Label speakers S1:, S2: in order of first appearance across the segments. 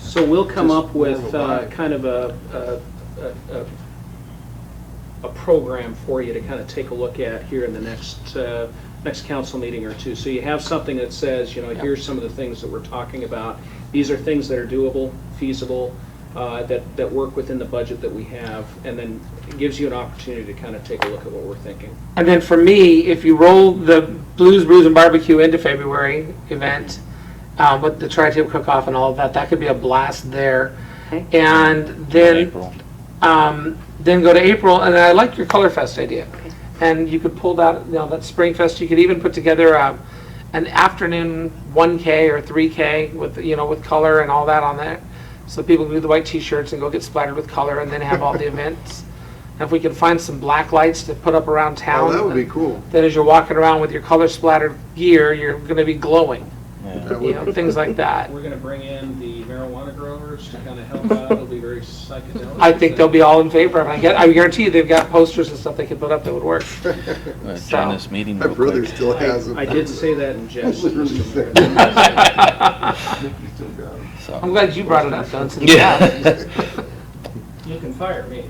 S1: So we'll come up with
S2: Just more
S1: uh,
S2: reliable.
S1: kind of a, a- a, a, a program for you to kind of take a look at here in the next, uh, next council meeting or two. So you have something that says, you know,
S2: Yeah.
S1: here's some of the things that we're talking about. These are things that are doable, feasible, uh, that, that work within the budget that we have, and then it gives you an opportunity to kind of take a look at what we're thinking.
S3: And then for me, if you roll the Blues, Brews, and Barbecue into February event, uh, with the tri-tip cook-off and all of that, that could be a blast there.
S1: Okay.
S3: And then, um, then go to April, and I like your Color Fest idea. And you could pull that, you know, that Spring Fest, you could even put together a, an afternoon 1K or 3K with, you know, with color and all that on there. So people can do the white t-shirts and go get splattered with color and then have all the events. And if we can find some black lights to put up around town.
S4: Oh, that would be cool.
S3: That as you're walking around with your color splattered gear, you're gonna be glowing,
S4: That
S3: you
S4: would
S3: know, things like that.
S1: We're going to bring in the marijuana growers to kind of help out. It'll be very psychedelic.
S3: I think they'll be all in favor of it. I get- I guarantee you, they've got posters and stuff they could put up that would work.
S5: Uh,
S3: So-
S5: Join this meeting
S4: My
S5: real
S4: brother
S5: quick.
S4: still has them.
S1: I I did say that in jest.
S4: Literally
S1: Mr. Mayor.
S4: said it.
S3: I'm
S5: So,
S3: glad you brought it up, Don, since you have it.
S5: yeah.
S1: You can fire me.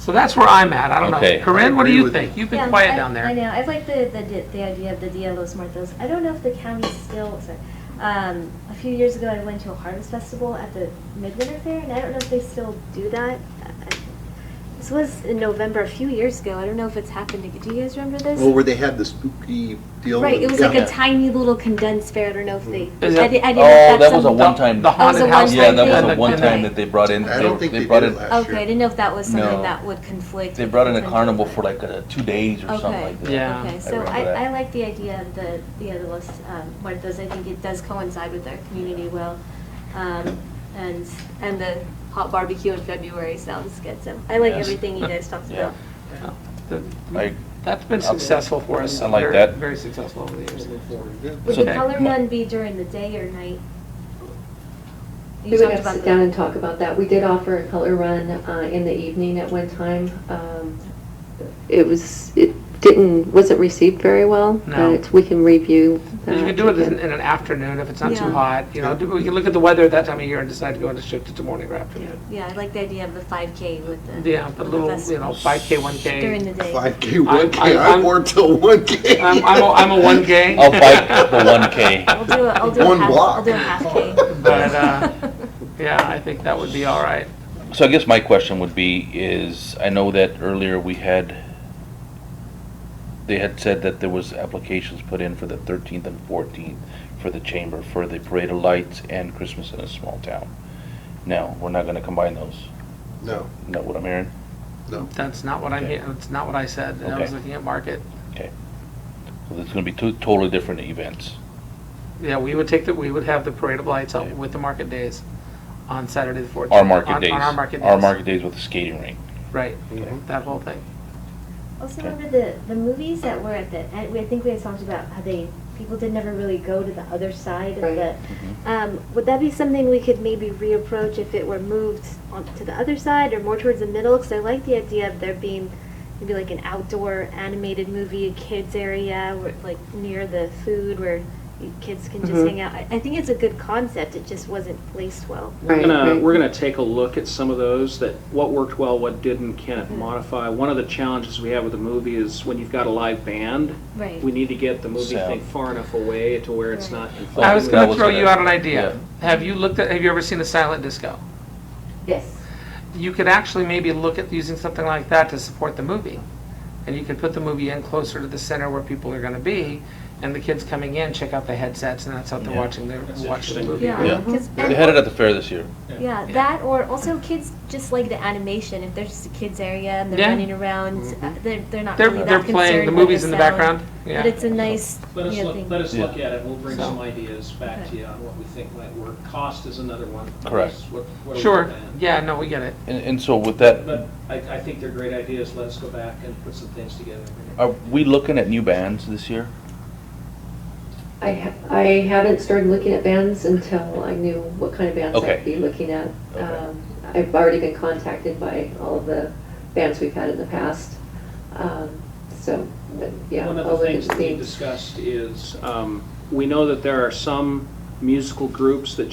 S3: So that's where I'm at. I don't
S5: Okay.
S3: know. Corinne, what do
S4: I agree
S3: you
S4: with
S3: think? You've
S6: Yeah,
S3: been quiet
S6: I-
S3: down
S6: I
S3: there.
S6: know, I like the, the, di- the idea of the Dia de los Muertos. I don't know if the county still, sorry. Um, a few years ago, I went to a harvest festival at the Midwinter Fair, and I don't know if they still do that. I- This was in November, a few years ago. I don't know if it's happened. ag- Do you guys remember this?
S4: Well, Oh, where they had the spooky deal.
S6: Right,
S4: with-
S6: it was like
S4: yeah.
S6: a tiny little condensed fair. I don't know if they.
S3: Is
S6: I
S3: it-
S6: di- I didn't know
S5: Oh,
S6: if
S5: that
S6: that's
S5: was a
S6: something-
S5: one-time.
S3: The haunted
S6: That was a
S3: house.
S6: one-time
S5: Yeah, that was
S6: thing.
S5: a one-time
S6: Okay.
S5: that they brought in.
S4: I don't think they
S5: brought
S4: did it
S5: in-
S4: last
S6: Okay, I
S4: year.
S6: didn't know if that was
S5: No.
S6: something that would conflict.
S5: They
S6: with
S5: brought in a
S6: potential
S5: carnival for
S6: conflict.
S5: like uh, two days or something
S6: Okay.
S5: like that.
S3: Yeah.
S6: Okay,
S5: I
S6: so
S5: remember
S6: I,
S5: that.
S6: I like the idea of the, the other list, um, Muertos, I think it does coincide with our community well. Um, and, and the hot barbecue in February sounds good, so I like
S5: Yes.
S6: everything you guys talked
S5: Yeah.
S6: about.
S5: I-
S3: That's been successful for us.
S5: I like
S3: Very-
S5: that.
S3: Very successful over the years.
S6: Would
S5: So-
S6: the color
S5: Ma-
S6: run be during the day or night? You
S7: We would
S6: talked
S7: have to
S6: about
S7: sit
S6: the-
S7: down and talk about that. We did offer a color run uh, in the evening at one time. Um, It was, it didn't, wasn't received very well,
S3: No.
S7: but we can review.
S3: And You
S7: that
S3: could do it in
S7: again.
S3: in an afternoon if it's not too
S6: Yeah.
S3: hot, you know, do- we can look at the weather at that time of year and decide to go into shift it to morning or afternoon.
S6: Yeah, I like the idea of the five K with the.
S3: Yeah, the
S6: with
S3: little, you
S6: festival.
S3: know, 5K, 1K.
S6: During the day.
S4: 5K, 1K, I
S3: I- I'm-
S4: wore till 1K.
S3: I'm, I'm, a, I'm a 1K.
S5: I'll fight the one K.
S6: I'll do a, I'll do a
S4: One
S6: half,
S4: block.
S6: I'll do a half K.
S3: But, uh, yeah, I think that would be all right.
S5: So I guess my question would be is, I know that earlier we had, they had said that there was applications put in for the thirteenth and fourteenth for the chamber, for the parade of lights and Christmas in a small town. No, we're not gonna combine those.
S4: No,
S5: Is that what I'm hearing?
S4: no.
S3: That's not what I,
S5: Okay.
S3: hear- that's not what I said. I
S5: Okay.
S3: was looking at market.
S5: So there's gonna be two totally different events.
S3: Yeah, we would take the, we would have the parade of lights out with the market days on Saturday the 14th.
S5: Our market
S3: on-
S5: days.
S3: On our market days.
S5: Our market days with the skating rink.
S3: Right, that whole thing.
S6: Also
S5: Okay.
S6: remember the, the movies that were at the, I I think we had talked about how they, people did never really go to the other side of
S7: Right.
S6: the, um, would that be something we could maybe reapproach if it were moved on to the other side or more towards the middle? Because I like the idea of there being maybe like an outdoor animated movie, a kids area, where, like near the food where you- kids can just
S3: Mhm.
S6: hang out. I, I think it's a good concept, it just wasn't placed well.
S1: We're
S7: Right,
S1: gonna,
S7: right.
S1: we're gonna take a look at some of those, that what worked well, what didn't, can it modify? One of the challenges we have with a movie is when you've got a live band,
S6: Right.
S1: we need to get the movie
S5: Sound.
S1: thing far enough away to where it's
S6: Right.
S1: not conflicting.
S3: I was
S5: that
S3: gonna
S5: was
S3: throw
S5: gonna-
S3: you out an idea. Have you looked at, have you ever seen a silent disco?
S7: Yes.
S3: You could actually maybe look at using something like that to support the movie. And you could put the movie in closer to the center where people are gonna be, and the kids coming in check out the headsets, and that's how they're
S5: Yeah.
S3: watching, they're
S1: That's
S3: watching the
S1: interesting.
S3: movie.
S6: Yeah.
S5: Yeah.
S6: 'Cause-
S5: They had it at the fair this year.
S6: Yeah, that or also kids just like the animation. If there's just a kids area and they're
S3: Yeah.
S6: running around, uh, they're they're not
S3: They're,
S6: really
S3: they're
S6: that
S3: playing,
S6: concerned
S3: the
S6: with
S3: movies in the
S6: sound,
S3: background,
S6: But
S3: yeah.
S6: it's a nice
S1: Let us
S6: you know,
S1: look,
S6: thing.
S1: let us
S5: Yeah.
S1: look at it, we'll bring
S3: So-
S1: some ideas back to
S6: Okay.
S1: you on what we think might work. Cost is another one.
S5: Correct.
S1: What- what are we
S3: Sure,
S1: looking at?
S3: yeah, no, we get it.
S5: And, and so with that,
S1: But I, I think they're great ideas, let us go back and put some things together.
S5: Are we looking at new bands this year?
S7: I, ha- I haven't started looking at bands until I knew what kind of bands
S5: Okay.
S7: I'd be looking at.
S5: Okay.
S7: Um, I've already been contacted by all of the bands we've had in the past. Um, So, but yeah.
S1: One of
S7: I'll
S1: the
S7: look
S1: things that
S7: and
S1: we
S7: see.
S1: discussed is, um, we know that there are some musical groups that